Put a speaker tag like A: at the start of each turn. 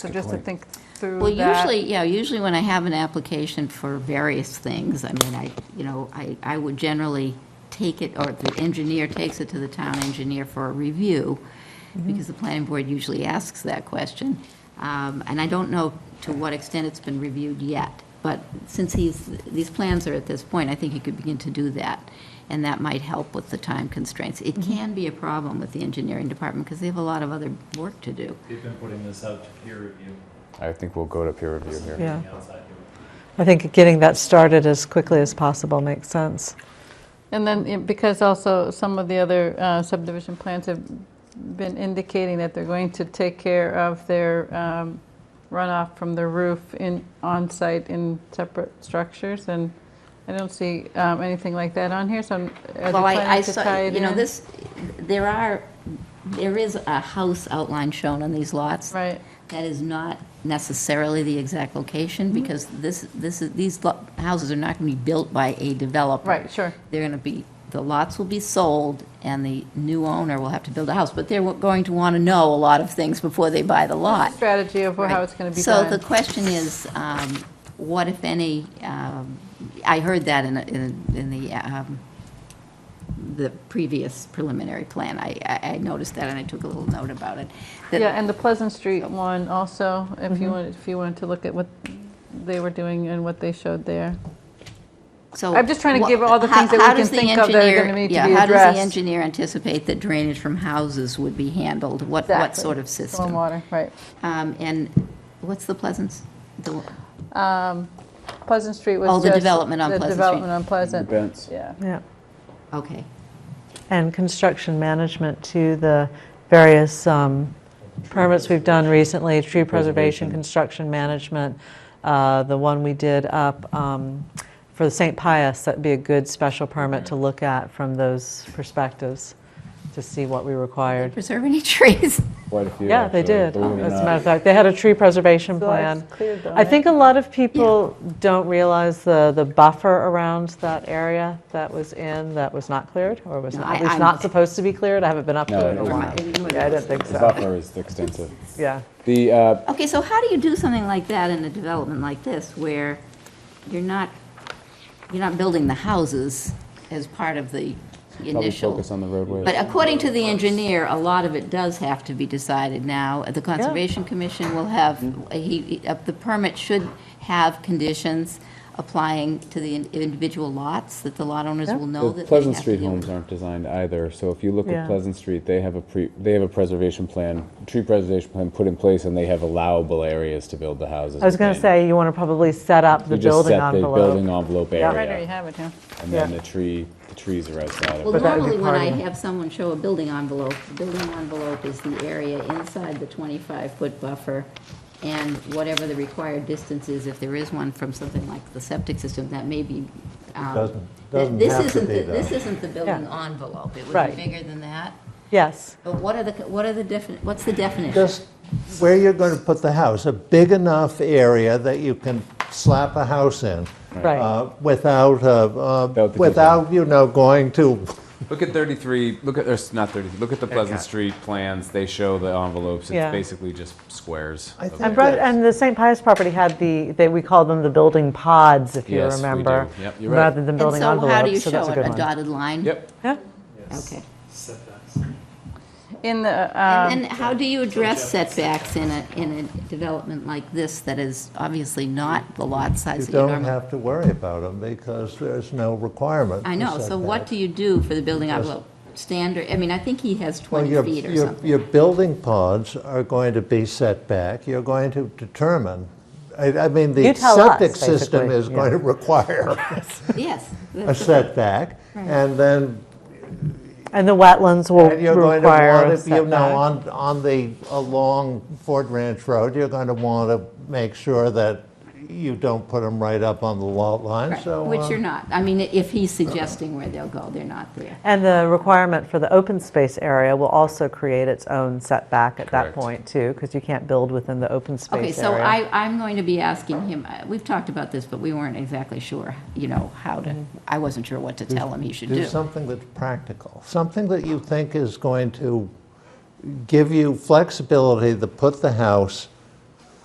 A: So just to think through
B: Well,
A: that.
B: usually, yeah, usually when I have an application for various things, I mean, I, you know, I, I would generally take it, or the engineer takes it to the town engineer for a review,
A: Mm-hmm.
B: because the planning board usually asks that question. Um, And I don't know to what extent it's been reviewed yet, but since he's, these plans are at this point, I think he could begin to do that, and that might help with the time constraints. It
A: Mm-hmm.
B: can be a problem with the engineering department, because they have a lot of other work to do.
C: They've been putting this out to peer review,
D: I think we'll go to peer review here.
E: Yeah,
C: the outside peer review.
E: I think getting that started as quickly as possible makes sense.
A: And then, eh, because also some of the other uh, subdivision plans have been indicating that they're going to take care of their um, runoff from the roof in, on-site in separate structures, and I don't see um, anything like that on here, so I'm- are they
B: Well, I, I
A: planning to
B: saw,
A: tie it
B: you know,
A: in?
B: this, there are, there is a house outline shown on these lots.
A: Right.
B: That is not necessarily the exact location,
A: Mm-hmm.
B: because this, this, is these lo- houses are not going to be built by a developer.
A: Right, sure.
B: They're going to be, the lots will be sold, and the new owner will have to build a house, but they're going to want to know a lot of things before they buy the lot.
A: Strategy of how
B: Right.
A: it's going to be
B: So the
A: done.
B: question is, um, what if any, um, I heard that in, a- in in the, um, the previous preliminary plan. I, I- I noticed that and I took a little note about it. that-
A: Yeah, and the Pleasant Street one also, if you wanted, if you wanted to look at what they were doing and what they showed there.
B: So
A: I'm just trying to
B: wha-
A: give all the
B: how-
A: things that we
B: how
A: can
B: does the
A: think of that are
B: engineer-
A: gonna need to
B: yeah,
A: be
B: How does
A: addressed?
B: the engineer anticipate that drainage from houses would be handled? What, what
A: Exactly.
B: sort of system?
A: Stormwater, right.
B: Um, And what's the Pleasance? The-
A: Pleasant Street was
B: Oh, the
A: just
B: development on Pleasant
A: The
B: Street.
A: development on Pleasant.
F: Events.
A: Yeah.
E: Yeah.
B: Okay.
E: And construction management to the various um, permits we've done recently, tree preservation, construction management. uh, The one we did up um, for the St. Pius, that'd be a good special permit to look at from those perspectives, to see what we required.
B: Preserve any trees?
D: Quite a few.
E: Yeah, they
D: actually,
E: did. As a
D: believe it or not.
E: matter of fact, they had a tree preservation
A: So it's
E: plan.
A: cleared though,
E: I think a lot of people don't realize the, the buffer around that area that was in, that was not cleared, or was
B: No,
E: not,
B: I-
E: at least
B: I'm-
E: not supposed to be cleared. I haven't been up
D: No,
E: to it in
D: it
E: a
D: was
E: while.
D: not.
E: Oh, Yeah, I didn't think
D: The
E: so.
D: buffer is extensive.
E: Yeah.
D: The, uh,
B: Okay, so how do you do something like that in a development like this, where you're not, you're not building the houses as part of the
D: probably
B: initial?
D: focus on the roadways.
B: But according to the engineer, a lot of it does have to be decided now. The Conservation Commission will have,
D: Mm-hmm.
B: he, he- uh, the permit should have conditions applying to the in- individual lots, that the lot owners
E: Yeah.
B: will know that they
D: The
B: have
D: Pleasant
B: to
D: Street
B: deal
D: homes
B: with.
D: aren't designed either, so if you look
E: Yeah.
D: at Pleasant Street, they have a pre, they have a preservation plan, tree preservation plan put in place, and they have allowable areas to build the houses.
E: I was going to
D: within.
E: say, you want to probably set up the
D: You just
E: building
D: set the building
E: envelope.
D: envelope
E: Yeah.
A: Right, or you
D: area,
A: have it, huh?
D: and then
E: Yeah.
D: the tree, the trees are outside of it.
B: Well,
E: But that would be
B: normally when I
E: part of it.
B: have someone show a building envelope, the building envelope is the area inside the 25-foot buffer and whatever the required distance is, if there is one from something like the septic system, that may be. um,
G: Doesn't-
B: th-
G: doesn't
B: this
G: have to
B: isn't
G: be,
B: the-
G: though.
B: This isn't the building
E: Yeah.
B: envelope. It would be
E: Right.
B: bigger than that.
E: Yes,
B: But what are the, what are the defini, what's the definition?
G: Just where you're going to put the house, a big enough area that you can slap a house in.
E: Right.
G: uh, Without, uh, uh,
D: the
G: without, you know, going to,
D: Look at 33, look at, or s- not 33, look at the Pleasant Street plans, they show the envelopes,
E: Yeah.
D: it's basically just squares.
G: I
D: of
G: think
D: land.
E: and Brett,
G: that's-
E: and the St. Pius property had the, they, we called them the building pods, if you
D: Yes, we
E: remember.
D: do. Yep, you're right.
E: Rather than building
B: And so
E: envelopes, so
B: how
E: that's a
B: do you
E: good
B: show it, a
E: one.
B: dotted line?
D: Yep,
E: Yeah.
B: Okay.
C: Setbacks.
A: In the, um,
B: And then how do you address setbacks in a, in a development like this that is obviously not the lot
G: you
B: size that you normally?
G: don't have to worry about them because there's no requirement.
B: I know, so what do you do for the building envelope? Standard, I mean, I think he has 20 feet or something.
G: Your building pods are going to be set back. You're going to determine, I, I mean,
E: You
G: the
E: tell us,
G: septic system
E: basically,
G: is
E: yeah.
G: going to require
B: Yes.
G: a setback. And then
E: And the wetlands will
G: And you're going to
E: require a
G: want to, you know,
E: setback.
G: on, on the, along Ford Ranch Road, you're going to want to make sure that you don't put them right up on the lot line,
B: Right,
G: so. uh-huh.
B: Which
G: uh,
B: you're not. I mean, if he's suggesting where they'll go, they're not there.
E: And the requirement for the open space area will also create its own setback at that
D: Correct.
E: point too, because you can't build within the open
B: Okay,
E: space
B: so
E: area.
B: I, I'm going to be asking him, uh, we've talked about this, but we weren't exactly sure, you know, how to, I wasn't sure what to tell him he should
G: Mm-hmm. Do
B: do.
G: something that's practical, something that you think is going to give you flexibility to put the house